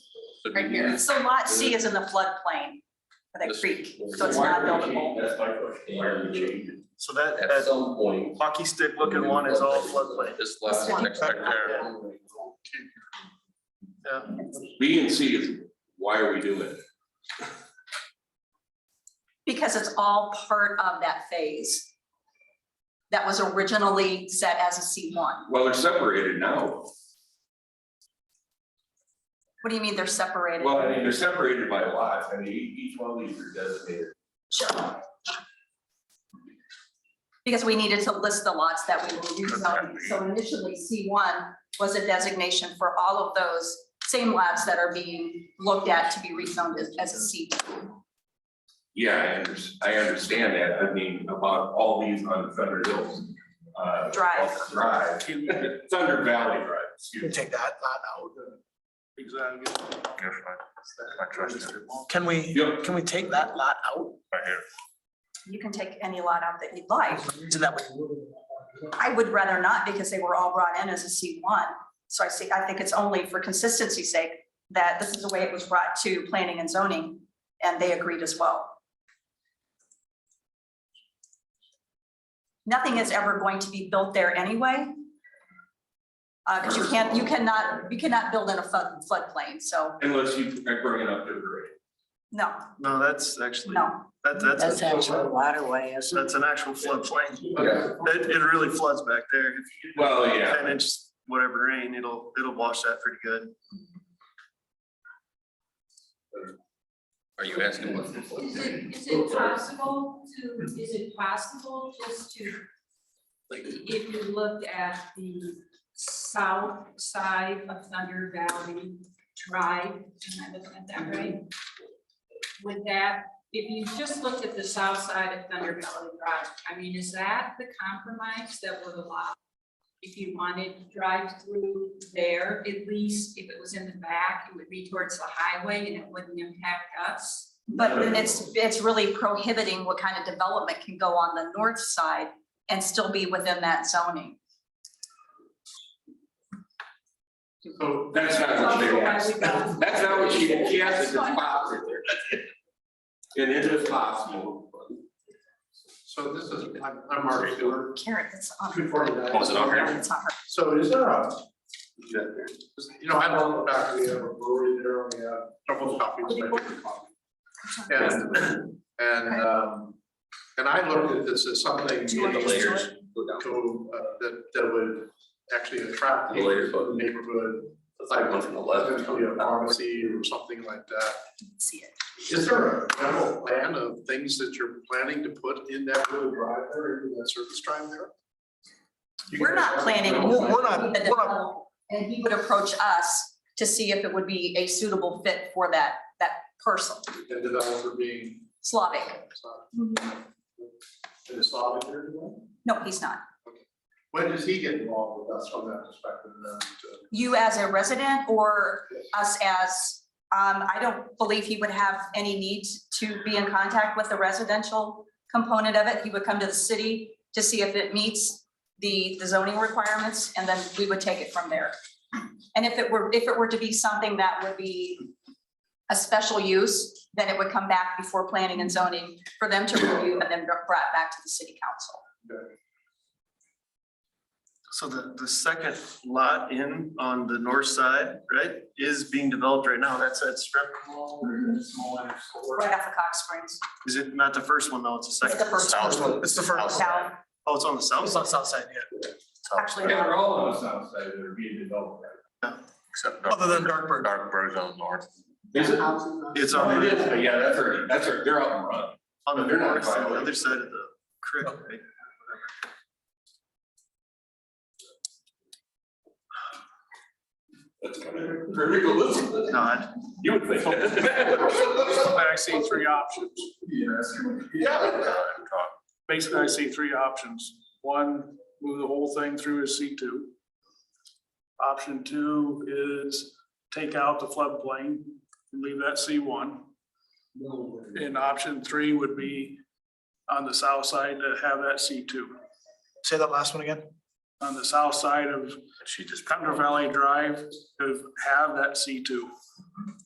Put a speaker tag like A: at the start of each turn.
A: should be
B: right here.
A: used.
B: So lot C is in the floodplain for that
A: This-
B: creek, so it's not buildable.
C: That's my question. Why are we changing?
D: So that,
A: At
D: that
A: some point.
D: hockey stick looking one is all floodplain.
A: This last
B: This one.
A: next hectare.
C: B and C is, why are we doing it?
B: Because it's all part of that phase. That was originally set as a C one.
C: Well, they're separated now.
B: What do you mean they're separated?
C: Well, I mean, they're separated by lots. I mean, e- each one of these are designated.
B: Sure. Because we needed to list the lots that we were rezoning, so initially C one was a designation for all of those same lots that are being looked at to be rezoned as, as a C two.
C: Yeah, I under, I understand that. I mean, about all these on Thunder Hills. uh,
B: Drive.
C: Drive. Thunder Valley Drive,
D: You
C: excuse
D: can
C: me.
D: take that, that out. Can we,
C: Yep.
D: can we take that lot out?
B: You can take any lot out that you'd like.
D: So that way,
B: I would rather not because they were all brought in as a C one. So I see, I think it's only for consistency's sake that this is the way it was brought to planning and zoning and they agreed as well. Nothing is ever going to be built there anyway. Uh, because you can't, you cannot, you cannot build in a flood floodplain, so
C: Unless you bring it up to grade.
B: no,
D: no, that's actually,
B: no.
D: that, that's.
E: That's actual waterway, isn't it?
D: That's an actual floodplain.
C: Yeah.
D: It, it really floods back there. If you get
C: Well, Oh, yeah.
D: Ten inch, whatever rain, it'll, it'll wash that pretty good.
A: Are you asking what?
F: Is it, is it possible to, is it possible just to, if you looked at the south side of Thunder Valley Drive, am I looking at that right? Would that, if you just looked at the south side of Thunder Valley Drive, I mean, is that the compromise that would allow? If you wanted to drive through there, at least if it was in the back, it would be towards the highway and it wouldn't impact us?
B: But it's, it's really prohibiting what kind of development can go on the north side and still be within that zoning.
C: So That's not what they asked. That's not what she, she asked if it's possible. And it is possible.
G: So this is, I'm, I'm Mark Stewart.
B: Karen, it's on.
G: Good for you.
A: Was Oh, it on here?
B: It's on her.
G: So is there a? You know, I love the fact that we have a brewery there on the, uh, double coffee. it's my favorite coffee. And, and, um, and I looked at this as something. maybe To, uh, that, that would actually attract
A: The
G: the
A: layers, but-
G: neighborhood,
A: It's like one from the left.
G: potentially a pharmacy or something like that.
B: See it.
G: Is there a general plan of things that you're planning to put in that little drive there, or in that service drive there?
B: We're not planning.
G: No,
D: We're- we're not-
B: the
D: we're not-
B: development, And he would approach us to see if it would be a suitable fit for that, that parcel,
G: And developer being.
B: Slavic.
G: Is Slavic here today?
B: No, he's not.
G: When does he get involved with us from that perspective then?
B: You as a resident or us as, um, I don't believe he would have any need to be in contact with the residential component of it. He would come to the city to see if it meets the, the zoning requirements, and then we would take it from there. And if it were, if it were to be something that would be a special use, then it would come back before planning and zoning for them to review and then brought back to the city council.
D: So the, the second lot in on the north side, right, is being developed right now. That's that strip mall or that small one or
B: Right
D: store.
B: off of Cox Springs,
D: Is it not the first one though? It's the
B: It's
D: second.
B: the first South
D: one. It's the first. one.
B: south,
D: Oh, it's on the south. It's on the south side, yeah.
B: actually.
C: Yeah, they're all on the south side that are being developed.
A: Except
D: Other than Darkburg.
A: Darkburg's on north.
C: Is it?
D: It's
C: Oh,
D: on
C: it is,
D: the,
C: but yeah, that's already, that's, already- they're up and running.
D: on the
C: They're not
D: north side, the
C: violating.
D: other side of the creek. right?
C: That's kind of ridiculous.
D: No, I-
C: You would think. that.
H: I see three options.
C: Yeah.
H: Basically, I see three options. One, move the whole thing through as C two. Option two is take out the floodplain, and leave that C one. And option three would be on the south side to have that C two.
D: Say that last one again.
H: On the south side of
A: She just.
H: Thunder Valley Drive, to have that C two.